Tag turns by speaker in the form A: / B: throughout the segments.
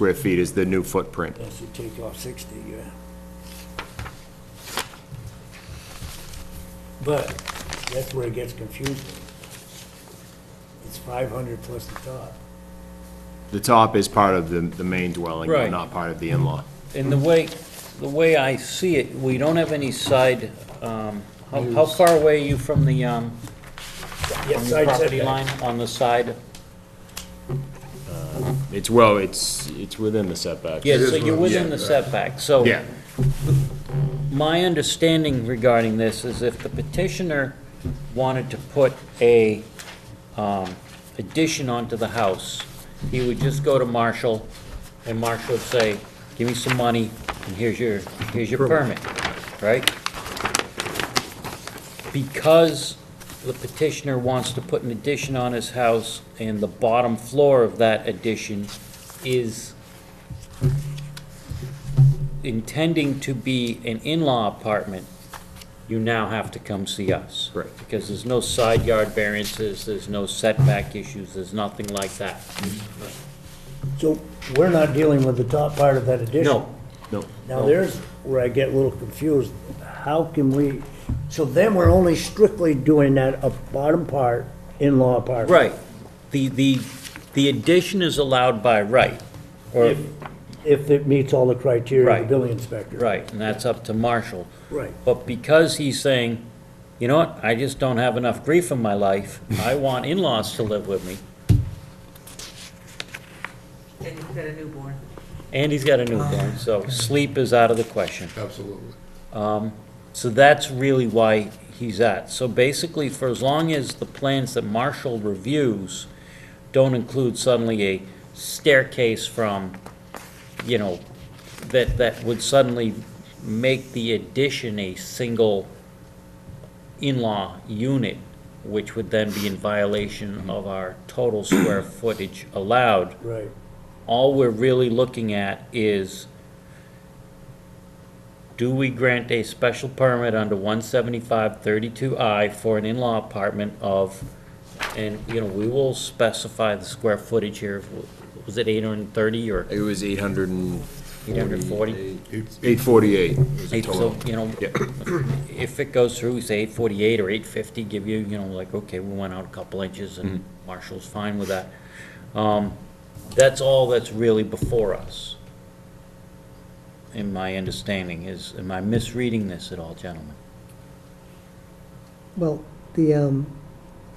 A: square feet is the new footprint.
B: Unless you take off 60, yeah. But that's where it gets confusing. It's 500 plus the top.
A: The top is part of the, the main dwelling, but
C: Right.
A: not part of the in-law.
C: And the way, the way I see it, we don't have any side, um, how, how far away are you from the, um,
B: Yeah,
C: from the
B: side
C: property
B: setback.
C: line on the side?
A: It's, well, it's, it's within the setback.
C: Yeah, so you're within the setback, so.
A: Yeah,
C: My understanding regarding this is if the petitioner wanted to put a um, addition onto the house, he would just go to Marshall, and Marshall would say, give me some money, and here's your, here's your permit, right? Because the petitioner wants to put an addition on his house, and the bottom floor of that addition is intending to be an in-law apartment, you now have to come see us.
A: Correct.
C: Because there's no side yard variances, there's no setback issues, there's nothing like that.
B: So we're not dealing with the top part of that addition?
C: No,
A: no,
B: Now, there's where I get a little confused. How can we, so then we're only strictly doing that up bottom part, in-law apartment?
C: right. The, the, the addition is allowed by right, or,
B: If it meets all the criteria of the
C: Right.
B: building inspector.
C: right, and that's up to Marshall.
B: Right.
C: But because he's saying, you know what, I just don't have enough grief in my life, I want in-laws to live with me,
D: And you've got a newborn.
C: and he's got a newborn, so sleep is out of the question. Um,
E: Absolutely.
C: So that's really why he's at. So basically, for as long as the plans that Marshall reviews don't include suddenly a staircase from, you know, that, that would suddenly make the addition a single in-law unit, which would then be in violation of our total square footage allowed
B: Right.
C: all we're really looking at is, do we grant a special permit under one seventy-five thirty-two I for an in-law apartment of, and, you know, we will specify the square footage here, was it eight hundred and thirty or
A: it was eight hundred and
C: eight hundred and forty?
A: Eight forty-eight.
C: Eight, so, you know, if it goes through, we say eight forty-eight or eight fifty, give you, you know, like, okay, we went out a couple inches and Marshall's fine with that. Um, that's all that's really before us. In my understanding is, am I misreading this at all, gentlemen?
F: Well, the, um,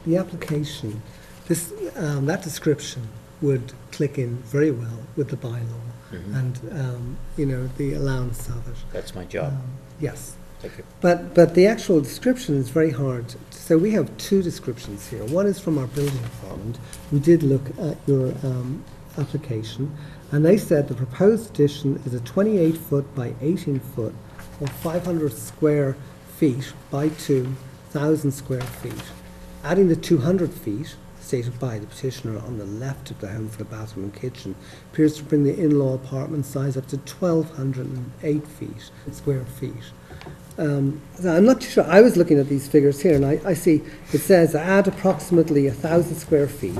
F: the application, this, um, that description would click in very well with the bylaw and, um, you know, the allowance of it.
C: That's my job.
F: Yes.
C: Thank you.
F: But, but the actual description is very hard. So we have two descriptions here. One is from our building department. We did look at your um, application, and they said the proposed addition is a 28 foot by 18 foot, or 500 square feet by 2,000 square feet. Adding the 200 feet stated by the petitioner on the left of the home for the bathroom and kitchen appears to bring the in-law apartment size up to 1,208 feet, square feet. Um, so I'm not sure, I was looking at these figures here, and I, I see, it says add approximately a thousand square feet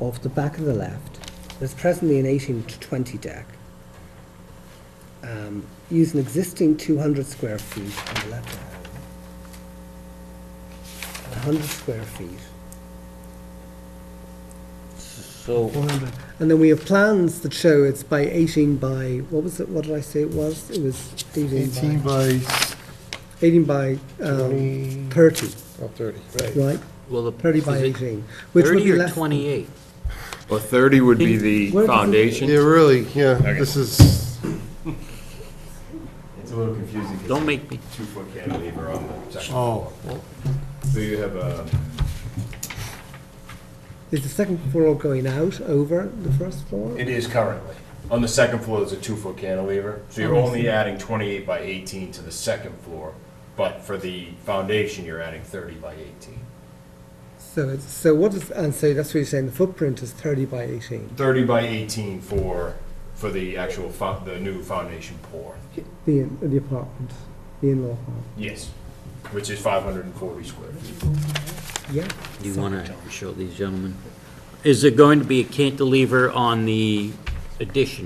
F: off the back of the left. There's presently an eighteen to twenty deck. Um, use an existing two hundred square feet on the left. A hundred square feet,
C: So,
F: four hundred, and then we have plans that show it's by eighteen by, what was it, what did I say it was? It was eighteen
E: 18
F: by,
E: by
F: eighteen by, um,
E: 20,
F: thirty,
E: oh, 30.
F: right?
C: well, the.
F: Thirty by
C: is it
F: eighteen, which would be
C: Thirty or
F: less. than-
C: twenty-eight?
A: Well, thirty would be the
F: Where does it-
E: Yeah,
A: foundation.
E: really, yeah, this is,
A: It's a little confusing.
C: Don't make me,
A: Two-foot cantilever on the second
E: oh,
A: So you have a,
F: Is the second floor going out over the first floor?
A: it is currently. On the second floor, there's a two-foot cantilever, so you're only adding twenty-eight by eighteen to the second floor, but for the foundation, you're adding thirty by eighteen.
F: So it's, so what is, and so that's what you're saying, the footprint is thirty by eighteen,
A: Thirty by eighteen for, for the actual, fo- the new foundation pour,
F: the, in- the apartment, the in-law apartment,
A: yes, which is five hundred and forty square feet.
F: yeah.
C: do you wanna show these gentlemen? Is there going to be a cantilever on the addition?